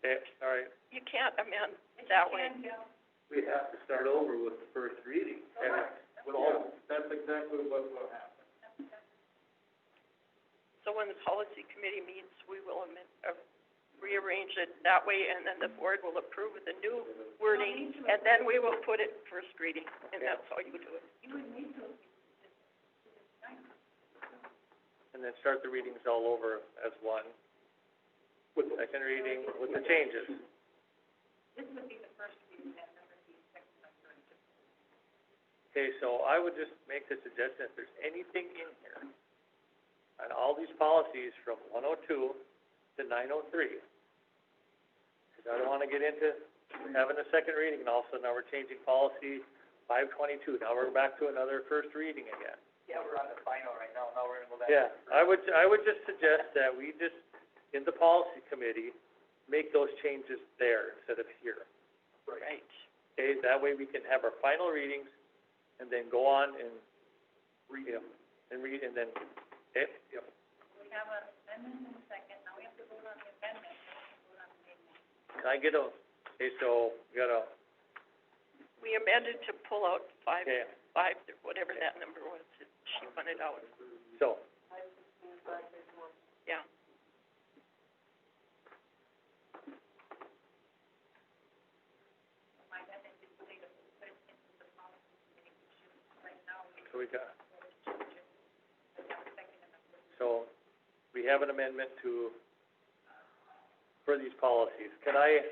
Okay, sorry, You can't amend that way. we have to start over with the first reading. With all, that's exactly what will happen. So when the policy committee meets, we will amend, uh, rearrange it that way, and then the board will approve with the new wording, and then we will put it first reading, and that's how you do it. and then start the readings all over as one. With second reading, with the changes. This would be the first reading, and number would be second, Okay, so I would just make the suggestion, if there's anything in here, on all these policies from one oh two to nine oh three, because I don't wanna get into having a second reading, and also now we're changing policy five twenty-two, now we're back to another first reading again. Yeah, we're on the final right now, now we're gonna go Yeah, I would, I would just suggest that we just, in the policy committee, make those changes there instead of here. Right. Okay, that way we can have our final readings and then go on and, you know, and read and then, okay? Yep. We have an amendment in second, now we have to vote on the amendment, Can I get a, okay, so, we got a, We amended to pull out five, okay, five, whatever that number was, that she wanted out, so, yeah. so we got. So, we have an amendment to, for these policies. Can I,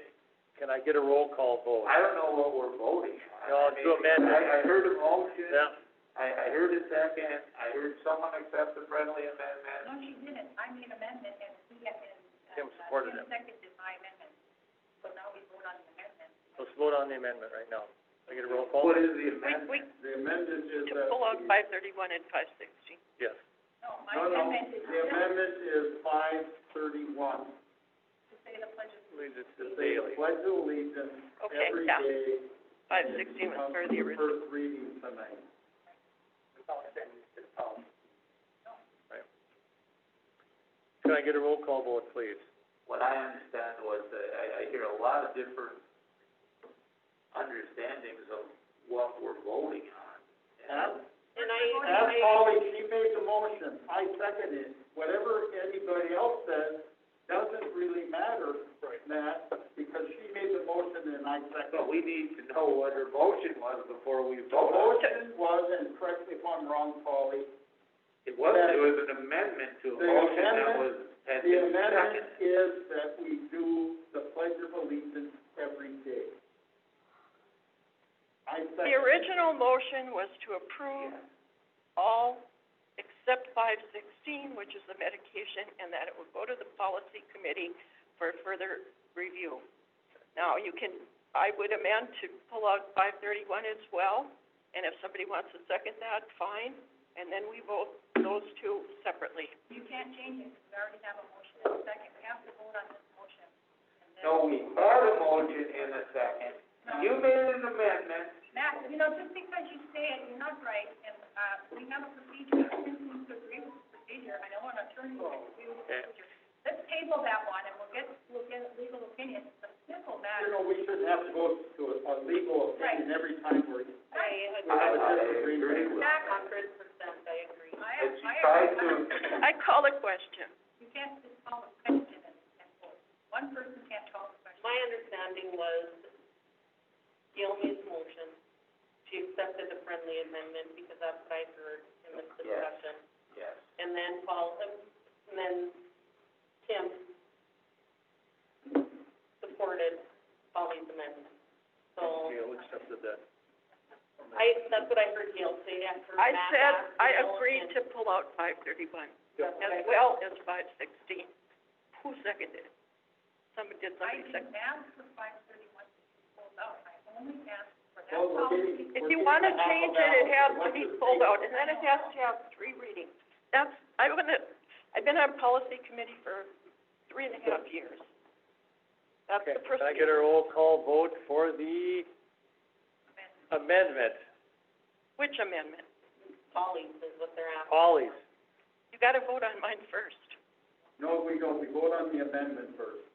can I get a roll call vote? I don't know what we're voting on. I No, to mean, amend it. I, I heard a motion, Yeah, I, I heard a second, I heard someone accept the friendly amendment. No, she. Tim supported it. Let's vote on the amendment right now. Can I get a roll call? What is the We, amendment? we, The amendment is that. to pull out the- five thirty-one and five sixteen. Yes. No, no, the amendment is five thirty-one. Allegiance To to the say the daily. pledge of allegiance Okay, every yeah, day five sixteen was for the original. First reading tonight. Can I get a roll call vote, please? What I understand was that I, I hear a lot of different understandings of what we're voting on. And And I, That's Polly, she made the motion, I second it. Whatever anybody else says doesn't really matter, Matt, because she made the motion and I second. But we need to know what her motion was before we vote. The motion was, and correct me if I'm wrong, Polly, It was, that- it was an amendment to a the motion that amendment- was, had The been amendment seconded. is that we do the pledge of allegiance every day. I second. The original motion was to approve all except five sixteen, which is the medication, and that it would go to the policy committee for further review. Now, you can, I would amend to pull out five thirty-one as well, and if somebody wants to second that, fine, and then we vote those two separately. No, we had a motion in a second. You made an amendment. uh, Okay. You know, we shouldn't have to go to a, a legal opinion every time we're, we have a disagreement. And she tried to, I call a question. Discussion. Yes. Yeah, we accepted that. I said, I agreed to pull out five thirty-one. Yep. as well as five sixteen. Who seconded it? Somebody, did somebody second? Well, we're getting, If we're you getting wanna a half change it, ballot. it has to Let's be just pulled take- out, and then it has to have three readings. That's, I'm gonna, I've been on policy committee for three and a half years. That's Okay, the can I procedure. get a roll call vote for the amendment? Which amendment? Polly's. You gotta vote on mine first. No, we don't, we vote on the amendment first.